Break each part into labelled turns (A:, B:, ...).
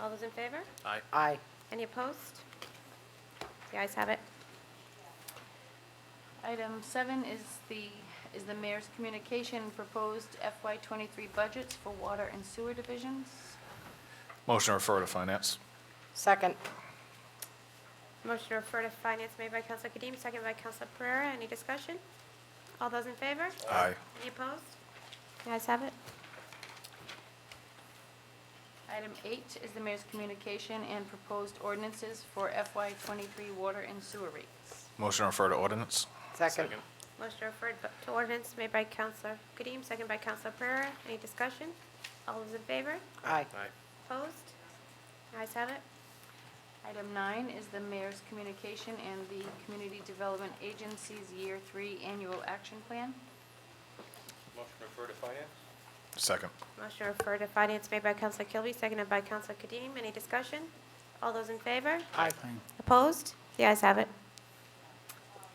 A: All those in favor?
B: Aye.
C: Aye.
A: Any opposed? The ayes have it.
D: Item seven is the, is the mayor's communication and proposed FY twenty-three budgets for water and sewer divisions.
B: Motion to refer to finance.
C: Second.
A: Motion to refer to finance made by Counsel Kadim, second by Counsel Pereira. Any discussion? All those in favor?
B: Aye.
A: Any opposed? The ayes have it.
D: Item eight is the mayor's communication and proposed ordinances for FY twenty-three water and sewer rates.
B: Motion to refer to ordinance.
C: Second.
A: Motion to refer to ordinance made by Counsel Kadim, second by Counsel Pereira. Any discussion? All those in favor?
C: Aye.
A: Opposed? The ayes have it.
D: Item nine is the mayor's communication and the Community Development Agency's Year Three Annual Action Plan.
E: Motion to refer to finance?
B: Second.
A: Motion to refer to finance made by Counsel Kilby, seconded by Counsel Kadim. Any discussion? All those in favor?
C: Aye.
A: Opposed? The ayes have it.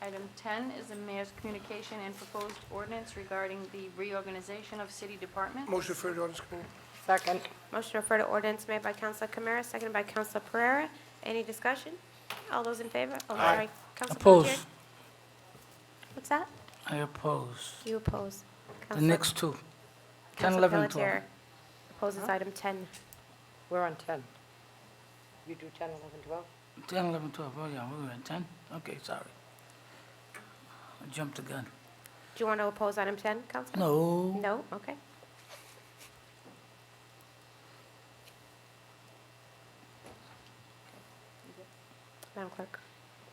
D: Item 10 is the mayor's communication and proposed ordinance regarding the reorganization of city departments.
F: Motion referred to ordinance committee.
C: Second.
A: Motion to refer to ordinance made by Counsel Kamara, seconded by Counsel Pereira. Any discussion? All those in favor? Oh,
B: Aye.
A: sorry, Counsel Pelletier.
F: Oppose.
A: What's that?
F: I oppose.
A: You oppose.
F: The
A: Counsel-
F: next two. 10,
A: Counsel
F: 11, 12.
A: Pelletier Opposes item 10.
C: We're on 10. You do 10, 11, 12?
F: 10, 11, 12. Oh, yeah, we were in 10? Okay, sorry. I jumped the gun.
A: Do you want to oppose item 10, Counsel?
F: No.
A: No? Okay. Madam Clerk.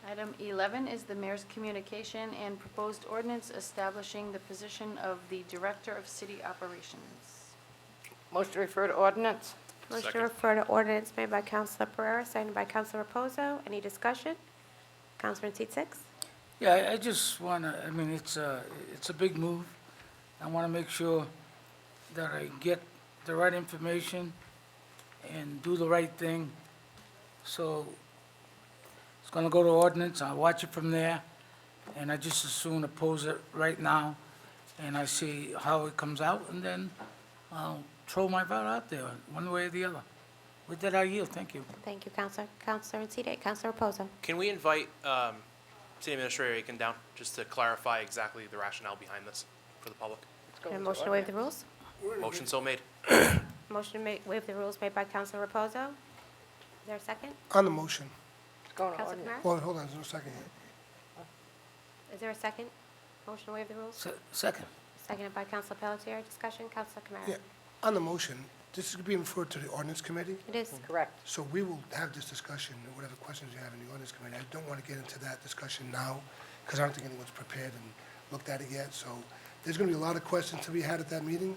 D: Item 11 is the mayor's communication and proposed ordinance establishing the position of the Director of City Operations.
C: Motion to refer to ordinance?
A: Motion to
B: Second.
A: refer to ordinance made by Counsel Pereira, seconded by Counsel Reposo. Any discussion? Counsel in seat six?
F: Yeah, I- I just want to, I mean, it's a, it's a big move. I want to make sure that I get the right information and do the right thing. So it's going to go to ordinance, I'll watch it from there, and I just as soon oppose it right now, and I see how it comes out, and then I'll throw my vote out there, one way or the other. With that, I yield, thank you.
A: Thank you, Counselor. Counselor in seat eight, Counselor Reposo.
G: Can we invite um, City Administrator Aiken down, just to clarify exactly the rationale behind this for the public?
C: Let's go
A: And
C: with
A: a
C: the
A: motion to waive the rules?
G: Motion so made.
A: Motion to ma- waive the rules made by Counselor Reposo. Is there a second?
H: On the motion,
C: Let's go to
A: Counselor
C: ordinance.
A: Kamara?
H: hold, hold on, there's no second yet.
A: Is there a second? Motion to waive the rules?
F: Se- Second.
A: Seconded by Counselor Pelletier. Discussion, Counselor Kamara?
H: Yeah, on the motion, this is being referred to the ordinance committee,
A: It is.
C: Correct.
H: so we will have this discussion, and whatever questions you have in the ordinance committee. I don't want to get into that discussion now, because I don't think anyone's prepared and looked at it yet, so there's going to be a lot of questions to be had at that meeting.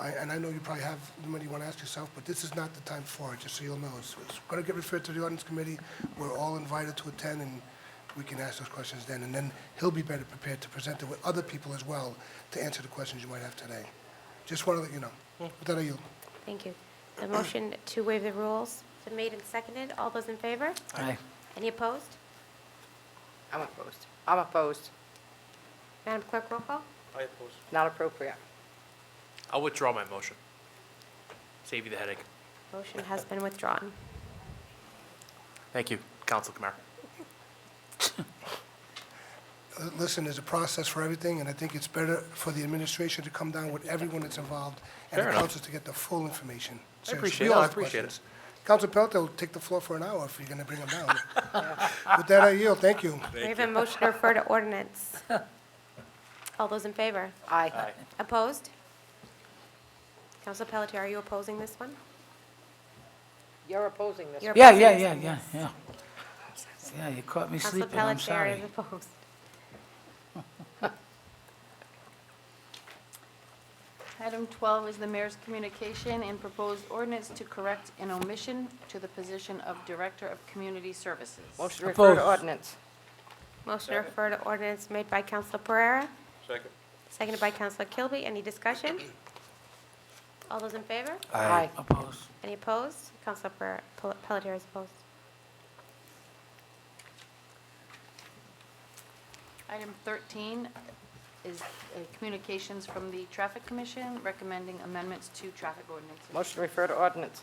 H: I- And I know you probably have many you want to ask yourself, but this is not the time for it, just so you'll know. It's going to get referred to the ordinance committee. We're all invited to attend, and we can ask those questions then. And then he'll be better prepared to present it with other people as well to answer the questions you might have today. Just want to let you know. With that, I yield.
A: Thank you. The motion to waive the rules has been made and seconded. All those in favor?
F: Aye.
A: Any opposed?
C: I'm opposed. I'm opposed.
A: Madam Clerk, roll call.
E: I oppose.
C: Not appropriate.
G: I'll withdraw my motion. Save you the headache.
A: Motion has been withdrawn.
G: Thank you, Council Kamara.
H: Uh, Listen, there's a process for everything, and I think it's better for the administration to come down with everyone that's involved and
G: Fair
H: the
G: enough.
H: council to get the full information. Seriously,
G: appreciate
H: we
G: it.
H: all
G: I
H: have
G: appreciate it.
H: questions. Council Pelton will take the floor for an hour if you're going to bring him down. With that, I yield. Thank you.
A: We have a motion to refer to ordinance. All those in favor?
C: Aye.
A: Opposed? Counsel Pelletier, are you opposing this one?
C: You're opposing this.
A: You're
F: Yeah,
A: opposing
F: yeah,
A: this
F: yeah,
A: one.
F: yeah, yeah. Yeah, you caught me
A: Counsel
F: sleeping, I'm
A: Pelletier
F: sorry.
A: is opposed.
D: Item 12 is the mayor's communication and proposed ordinance to correct an omission to the position of Director of Community Services.
C: Motion to refer to
F: Opposed.
C: ordinance.
A: Motion to
E: Second.
A: refer to ordinance made by Counsel Pereira,
E: Second.
A: seconded by Counsel Kilby. Any discussion? All those in favor?
F: Uh,
C: Aye.
F: Opposed.
A: Any opposed? Counsel Pereira- Pel- Pelletier is opposed.
D: Item 13 is uh, communications from the Traffic Commission recommending amendments to traffic ordinances.
C: Motion to refer to ordinance.